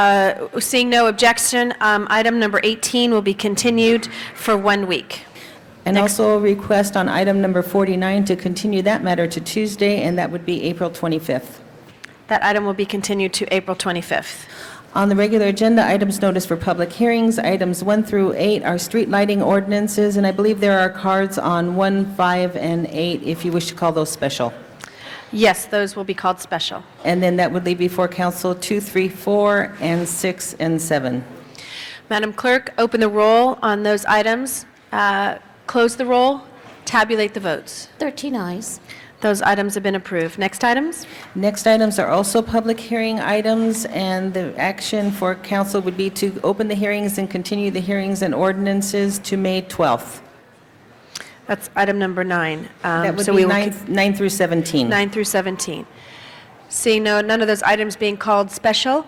Uh, Seeing no objection, um, item number 18 will be continued for one week. And also a request on item number 49 to continue that matter to Tuesday, and that would be April 25th. That item will be continued to April 25th. On the regular agenda, items noticed for public hearings, items 1 through 8 are street lighting ordinances, and I believe there are cards on 1, 5, and 8, if you wish to call those special. Yes, those will be called special. And then that would leave before council 2, 3, 4, and 6, and 7. Madam Clerk, open the roll on those items, uh, close the roll, tabulate the votes. 13 eyes. Those items have been approved. Next items? Next items are also public hearing items, and the action for council would be to open the hearings and continue the hearings and ordinances to May 12th. That's item number nine. Um, That would so be we will con- 9 nine through 17. Nine through 17. Seeing no, none of those items being called special,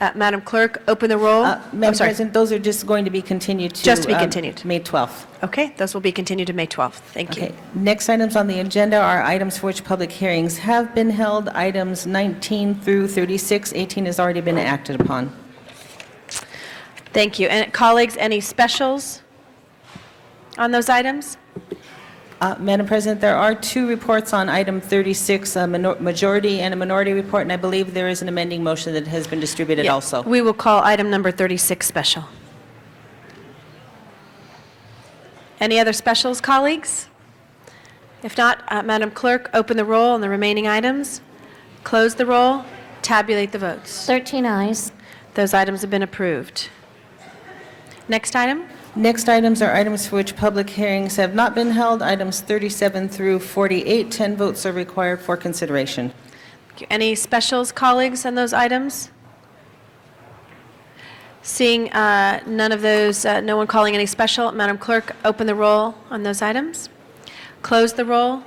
uh, Madam Clerk, open the roll. Uh, I'm Madam sorry. President, those are just going to be continued to... Just to be um, continued. May 12th. Okay, those will be continued to May 12th. Thank you. Okay. Next items on the agenda are items for which public hearings have been held, items 19 through 36. 18 has already been acted upon. Thank you. And colleagues, any specials on those items? Uh, Madam President, there are two reports on item 36, a minor- majority and a minority report, and I believe there is an amending motion that has been distributed Yeah. also. We will call item number 36 special. Any other specials, colleagues? If not, uh, Madam Clerk, open the roll on the remaining items, close the roll, tabulate the votes. 13 eyes. Those items have been approved. Next item? Next items are items for which public hearings have not been held, items 37 through 48. 10 votes are required for consideration. Any specials, colleagues, on those items? Seeing uh, none of those, uh, no one calling any special, Madam Clerk, open the roll on those items, close the roll,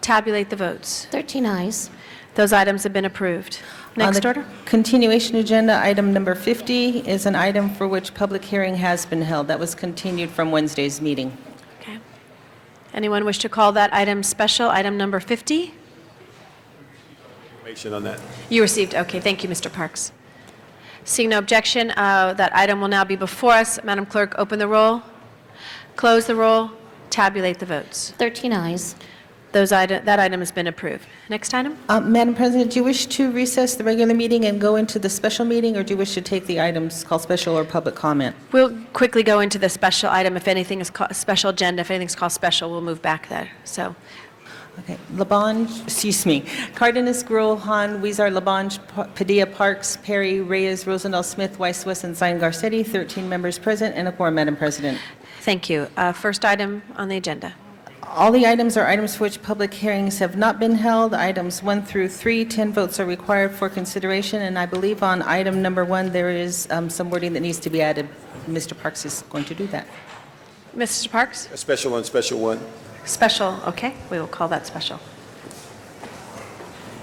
tabulate the votes. 13 eyes. Those items have been approved. On Next the order? Continuation agenda, item number 50 is an item for which public hearing has been held. That was continued from Wednesday's meeting. Okay. Anyone wish to call that item special, item number 50? information on that. You received, okay, thank you, Mr. Parks. Seeing no objection, uh, that item will now be before us. Madam Clerk, open the roll, close the roll, tabulate the votes. 13 eyes. Those item, that item has been approved. Next item? Uh, Madam President, do you wish to recess the regular meeting and go into the special meeting, or do you wish to take the items called special or public comment? We'll quickly go into the special item. If anything is called, special agenda, if anything's called special, we'll move back there. So, Okay, Labange, excuse me, Cardenas, Gruel, Han, Weezer, Labange, Pa- Padilla, Parks, Perry, Reyes, Rosendahl, Smith, Weiss, West, and Zine Garcetti, 13 members present, and a quorum, Madam President. thank you. Uh, First item on the agenda. All the items are items for which public hearings have not been held. Items 1 through 3, 10 votes are required for consideration, and I believe on item number 1, there is um, some wording that needs to be added. Mr. Parks is going to do that. Mr. Parks? A special on special one. Special, okay, we will call that special.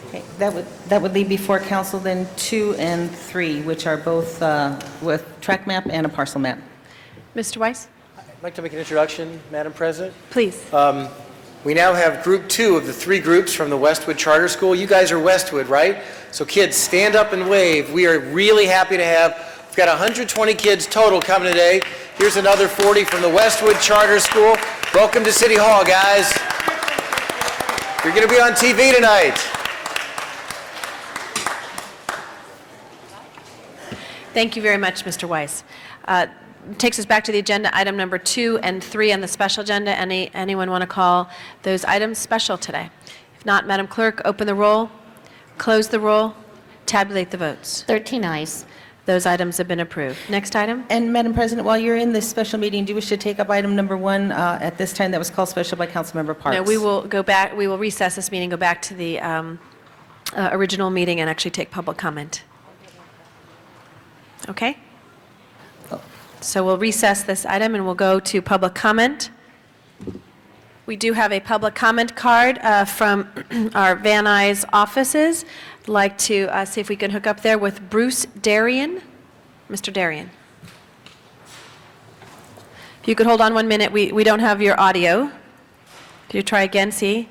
Okay, That would, that would leave before council then 2 and 3, which are both uh, with track map and a parcel map. Mr. Weiss? I'd like to make an introduction, Madam President. Please. We now have Group Two of the three groups from the Westwood Charter School. You guys are Westwood, right? So kids, stand up and wave. We are really happy to have, we've got 120 kids total coming today. Here's another 40 from the Westwood Charter School. Welcome to City Hall, guys. You're going to be on TV tonight. Thank you very much, Mr. Weiss. Uh, Takes us back to the agenda, item number two and three on the special agenda. Any Anyone want to call those items special today? If not, Madam Clerk, open the roll, close the roll, tabulate the votes. 13 eyes. Those items have been approved. Next item? And Madam President, while you're in this special meeting, do you wish to take up item number 1 uh, at this time that was called special by Councilmember Parks? No, we will go back, we will recess this meeting, go back to the um, uh, original meeting and actually take public comment. Okay? So we'll recess this item and we'll go to public comment. We do have a public comment card uh, from our Van Nuys offices. I'd Like to uh, see if we can hook up there with Bruce Darian. Mr. Darian. If you could hold on one minute, we we don't have your audio. Could you try again, see?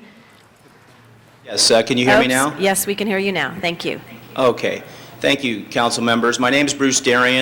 Yes, uh, can you hear me Oops. now? Yes, we can hear you now. Thank you. Okay. Thank you, council members. My name is Bruce Darian.